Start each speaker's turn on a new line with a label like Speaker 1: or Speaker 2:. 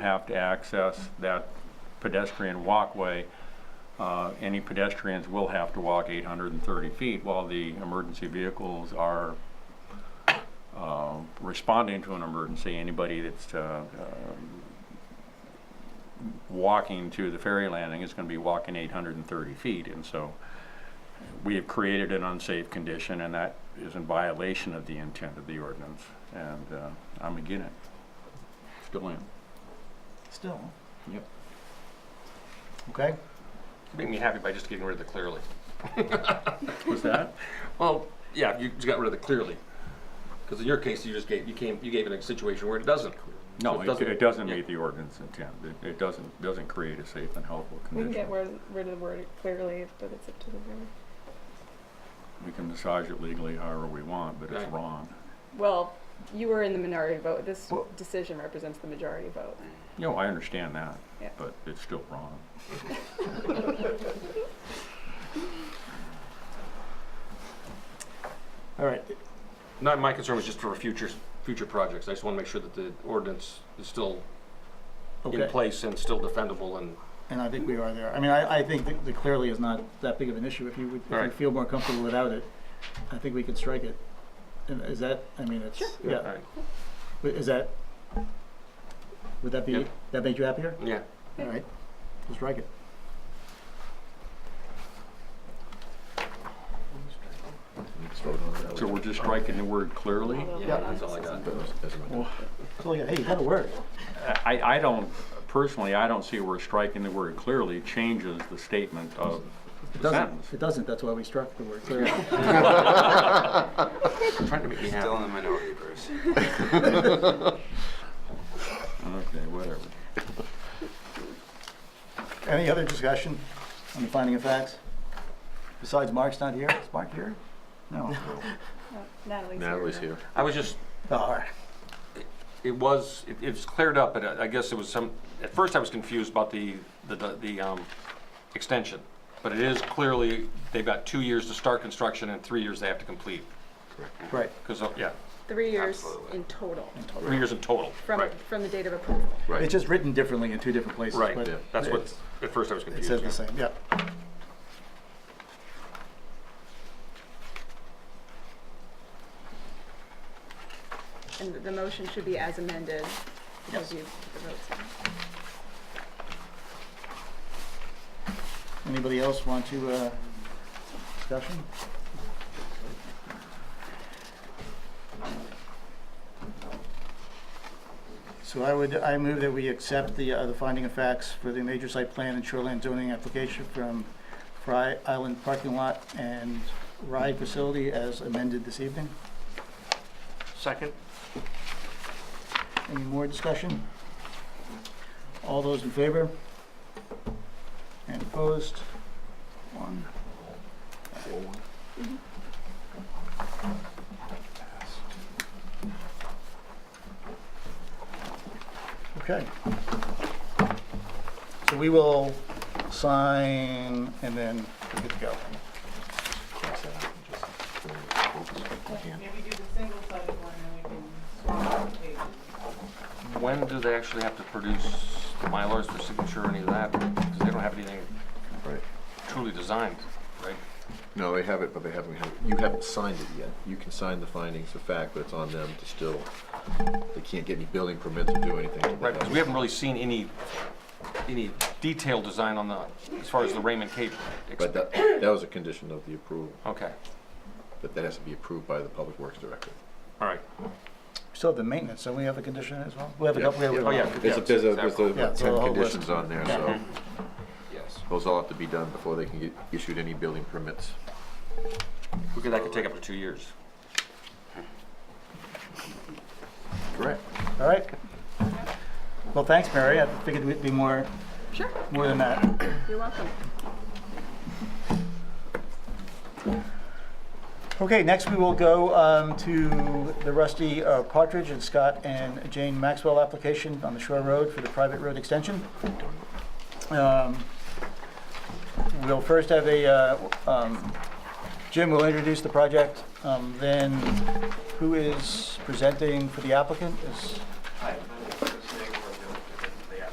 Speaker 1: have to access that pedestrian walkway. Uh, Any pedestrians will have to walk 830 feet while the emergency vehicles are uh, responding to an emergency. Anybody that's uh, um, walking to the ferry landing is going to be walking 830 feet. And so we have created an unsafe condition, and that is in violation of the intent of the ordinance. And uh, I'm again it. Still am.
Speaker 2: Still.
Speaker 1: Yep.
Speaker 2: Okay,
Speaker 3: Make me happy by just getting rid of the clearly.
Speaker 1: Was that?
Speaker 3: Well, yeah, you just got rid of the clearly. Because in your case, you just gave, you came, you gave it a situation where it doesn't.
Speaker 1: No,
Speaker 3: So
Speaker 1: it it doesn't
Speaker 3: yeah.
Speaker 1: meet the ordinance intent. It- It doesn't, doesn't create a safe and helpful
Speaker 4: We can
Speaker 1: condition.
Speaker 4: get rid, rid of the word clearly, but it's up to the board.
Speaker 1: We can massage it legally however we want, but it's
Speaker 3: Right.
Speaker 1: wrong.
Speaker 4: Well, you were in the minority vote. This
Speaker 2: Well-
Speaker 4: decision represents the majority vote.
Speaker 1: You know, I understand that,
Speaker 4: Yeah.
Speaker 1: but it's still wrong.
Speaker 2: all right.
Speaker 3: Not, my concern was just for future, future projects. I just want to make sure that the ordinance is still in
Speaker 2: Okay,
Speaker 3: place and still defendable and.
Speaker 2: and I think we are there. I mean, I, I think that that clearly is not that big of an issue. If you, would- if you
Speaker 3: Alright.
Speaker 2: feel more comfortable without it, I think we can strike it. And is that, I mean, it's,
Speaker 3: All
Speaker 2: yeah,
Speaker 3: right.
Speaker 2: Wi- is that, would that be,
Speaker 3: Yep.
Speaker 2: that make you happier?
Speaker 3: Yeah,
Speaker 2: All right, we'll strike it.
Speaker 1: So we're just striking the word clearly?
Speaker 4: Although
Speaker 3: yeah,
Speaker 4: we're not
Speaker 3: that's all I got.
Speaker 2: So like, hey, you had a word.
Speaker 4: Uh-huh.
Speaker 1: I, I don't, personally, I don't see where striking the word clearly changes the statement of
Speaker 2: It
Speaker 1: the
Speaker 2: doesn't,
Speaker 1: sentence.
Speaker 2: it doesn't, that's why we struck the word clearly.
Speaker 3: Trying to make me happy.
Speaker 5: Still in the minority, Bruce.
Speaker 1: Okay, whatever.
Speaker 2: Any other discussion on the finding of facts? Besides, Mark's not here. Is Mark here? No.
Speaker 4: No, Natalie's
Speaker 5: here.
Speaker 3: I was just,
Speaker 2: Oh, all right.
Speaker 3: it was, it, it was cleared up, but I I guess it was some, at first I was confused about the, the- the, the, um, extension. But it is clearly, they've got two years to start construction and three years they have to complete.
Speaker 2: Right.
Speaker 3: Because, uh, yeah,
Speaker 4: Three years
Speaker 5: Absolutely.
Speaker 4: in total
Speaker 3: three years in total.
Speaker 4: from
Speaker 3: Right.
Speaker 4: from the date of approval.
Speaker 5: Right.
Speaker 2: It's just written differently in two different places.
Speaker 3: Right,
Speaker 2: but
Speaker 3: that's what,
Speaker 2: it-
Speaker 3: at first I was
Speaker 2: It
Speaker 3: confused.
Speaker 2: says the
Speaker 3: yeah.
Speaker 2: same, yeah.
Speaker 4: And the motion should be as amended because you put the votes in.
Speaker 2: Anybody else want to, uh, discussion? So I would, I move that we accept the, uh, the finding of facts for the major site plan and shoreline zoning application from Fry Island Parking Lot and Ride Facility as amended this evening.
Speaker 3: Second?
Speaker 2: Any more discussion? All those in favor? And opposed? One. Okay. So we will sign and then we're good to go.
Speaker 6: Maybe do the single sided one, then we can swap out the pages.
Speaker 3: When do they actually have to produce the Mylars for signature or any of that? Because they don't have anything
Speaker 7: Right.
Speaker 3: truly designed, right?
Speaker 7: No, they have it, but they haven't had, you haven't signed it yet. You can sign the findings of fact, but it's on them to still, they can't get any building permits or do anything. till they
Speaker 3: Right,
Speaker 7: have
Speaker 3: because we haven't really seen any, any detailed design on the, as far as the Raymond Cape.
Speaker 7: it.
Speaker 3: ex-
Speaker 7: But that, that was a condition of the approval,
Speaker 3: Okay,
Speaker 7: but that has to be approved by the Public Works Director.
Speaker 3: all right.
Speaker 2: So the maintenance, don't we have a condition as well? We have a
Speaker 7: Yeah.
Speaker 2: couple, we have a
Speaker 3: Oh, yeah.
Speaker 7: There's, a- there's a, there's a
Speaker 2: Yeah,
Speaker 7: about
Speaker 2: so the
Speaker 7: ten
Speaker 2: whole list.
Speaker 7: conditions on there, so
Speaker 3: Yes.
Speaker 7: those all have to be done before they can get issued any building permits.
Speaker 3: Because that could take up to two years.
Speaker 7: Correct.
Speaker 2: All right. Well, thanks, Mary. I figured we'd be more,
Speaker 4: Sure,
Speaker 2: more than that.
Speaker 4: you're welcome.
Speaker 2: Okay, next we will go um, to the Rusty uh, Partridge and Scott and Jane Maxwell application on the Shore Road for the private road extension. Um, We'll first have a, uh, um, Jim will introduce the project, um, then who is presenting for the applicant is